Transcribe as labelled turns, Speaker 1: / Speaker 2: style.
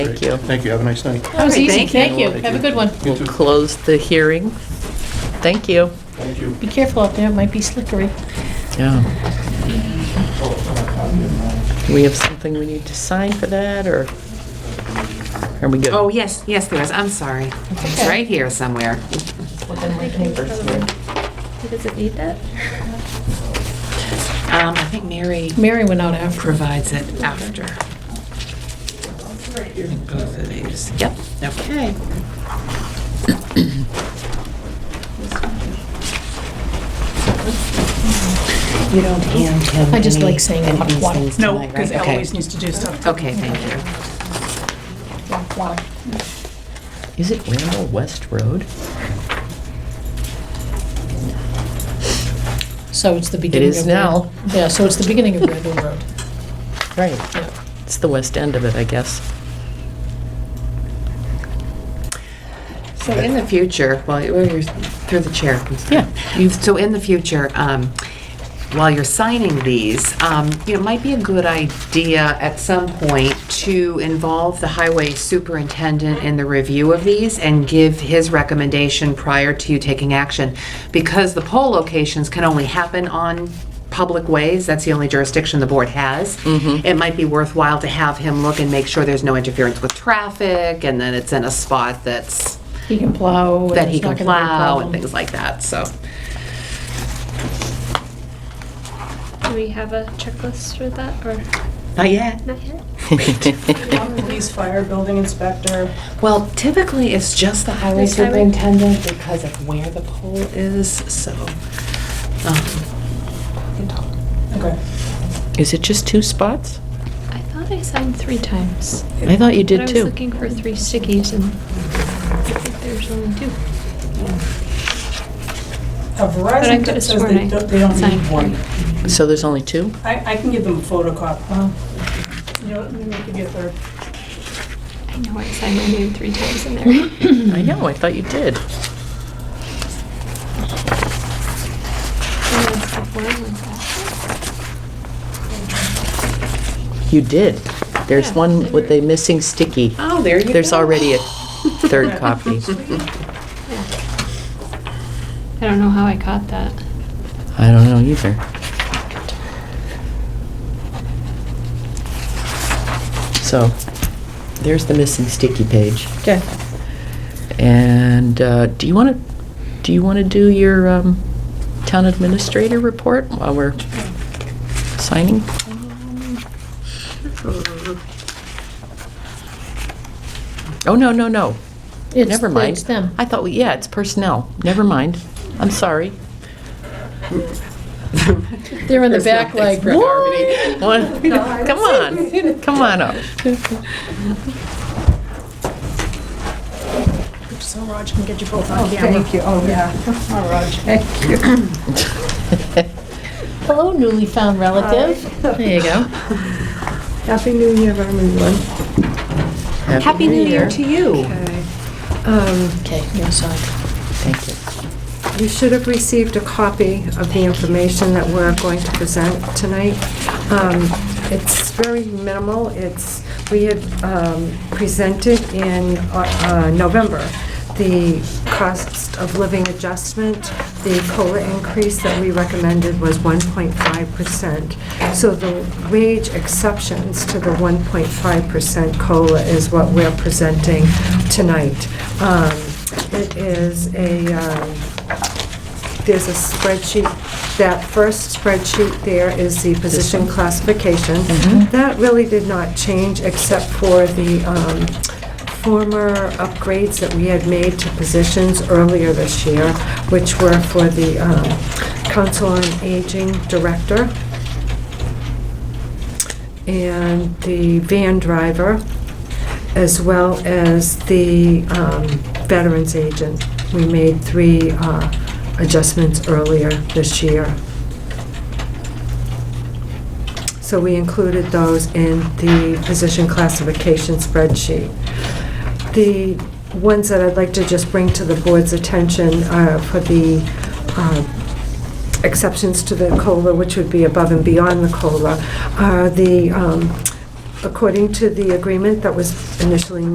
Speaker 1: Thank you.
Speaker 2: Thank you, have a nice night.
Speaker 3: That was
Speaker 4: All right,
Speaker 3: easy,
Speaker 4: thank you.
Speaker 3: thank you.
Speaker 2: Thank
Speaker 3: Have a
Speaker 2: you.
Speaker 3: good one.
Speaker 2: You
Speaker 1: We'll
Speaker 2: too.
Speaker 1: close the hearing. Thank you.
Speaker 2: Thank you.
Speaker 3: Be careful out there, it might be slippery.
Speaker 1: Yeah. We have something we need to sign for that, or are we good?
Speaker 4: Oh, yes, yes, there is. I'm sorry. It's
Speaker 3: okay.
Speaker 4: right here somewhere.
Speaker 5: Does it need that?
Speaker 4: Um, I think Mary
Speaker 3: Mary went out after.
Speaker 4: provides it after. Both of these. Yep, okay. You don't hand him
Speaker 3: I just
Speaker 4: any-
Speaker 3: like saying
Speaker 4: any of these
Speaker 3: aquatic.
Speaker 4: things
Speaker 6: No,
Speaker 4: tonight,
Speaker 6: because
Speaker 4: right? Okay.
Speaker 6: Eloise needs to do stuff.
Speaker 4: Okay, thank you.
Speaker 1: Is it Randall West Road?
Speaker 3: So it's the beginning of.
Speaker 1: is
Speaker 3: Red-
Speaker 1: now.
Speaker 3: Yeah, so it's the beginning of Randall Road.
Speaker 1: Right.
Speaker 3: Yeah.
Speaker 1: It's the west end of it, I guess.
Speaker 4: So in the future, while you're, you're- through the chair. I'm sorry.
Speaker 1: Yeah, you-
Speaker 4: So in the future, um, while you're signing these, um, you know, it might be a good idea at some point to involve the highway superintendent in the review of these and give his recommendation prior to you taking action. Because the poll locations can only happen on public ways, that's the only jurisdiction the board has. It might be worthwhile to have him look and make sure there's no interference with traffic and then it's in a spot that's
Speaker 3: He can plow. and
Speaker 4: that he
Speaker 3: it's
Speaker 4: can
Speaker 3: not gonna be a
Speaker 4: plow and
Speaker 3: problem.
Speaker 4: things like that, so.
Speaker 5: Do we have a checklist for that or
Speaker 4: Not yet.
Speaker 5: not yet?
Speaker 6: Police, fire, building inspector.
Speaker 4: Well, typically, it's just the highway
Speaker 5: Just highway.
Speaker 4: superintendent because of where the pole is, so. um,
Speaker 6: Okay.
Speaker 1: Is it just two spots?
Speaker 5: I thought I signed three times.
Speaker 1: I thought you did
Speaker 5: But I was
Speaker 1: two.
Speaker 5: looking for three stickies and I think there's only two.
Speaker 6: A
Speaker 5: I
Speaker 6: Verizon
Speaker 5: could've
Speaker 6: says
Speaker 5: sworn
Speaker 6: they
Speaker 5: I
Speaker 6: don't, they don't
Speaker 5: signed
Speaker 6: need one.
Speaker 1: So there's only two?
Speaker 6: I, I can give them a photocopy. You know, you can get their,
Speaker 5: I know I signed my name three times in there.
Speaker 1: I know, I thought you did.
Speaker 5: And that's the form with that.
Speaker 1: You did. There's
Speaker 5: Yeah,
Speaker 1: one
Speaker 5: they
Speaker 1: with
Speaker 5: were-
Speaker 1: a missing sticky.
Speaker 4: Oh, there you go.
Speaker 1: There's already a third copy.
Speaker 5: I don't know how I caught that.
Speaker 1: I don't know either. So, there's the missing sticky page.
Speaker 3: Okay.
Speaker 1: And uh, do you want to, do you want to do your um, town administrator report while we're signing? Oh, no, no, no.
Speaker 3: It's-
Speaker 1: Never mind.
Speaker 3: It's them.
Speaker 1: I thought, we yeah, it's personnel. Never mind. I'm sorry.
Speaker 3: They're in the
Speaker 4: There's no
Speaker 3: back like,
Speaker 4: expert harmony.
Speaker 1: What? Come on, come on up.
Speaker 6: so Raj can get you both on camera. Thank you, oh, yeah. Oh, Raj. Thank you.
Speaker 3: hello newly found relative. There you go.
Speaker 7: Happy New Year, everyone.
Speaker 4: Happy New Year to you.
Speaker 7: Okay. Um,
Speaker 3: Okay, you're inside.
Speaker 1: Thank you.
Speaker 7: You should have received a copy of the information that we're going to present tonight. Um, It's very minimal. It's, we had um, presented in uh, uh, November the cost of living adjustment. The COLA increase that we recommended was 1.5%. So the wage exceptions to the 1.5% COLA is what we're presenting tonight. Um, It is a, um, there's a spreadsheet, that first spreadsheet there is the position classification. That really did not change except for the um, former upgrades that we had made to positions earlier this year, which were for the um, Council on Aging Director and the van driver, as well as the um, veterans agent. We made three uh, adjustments earlier this year. So we included those in the position classification spreadsheet. The ones that I'd like to just bring to the board's attention are for the uh, exceptions to the COLA, which would be above and beyond the COLA, are the um, according to the agreement that was initially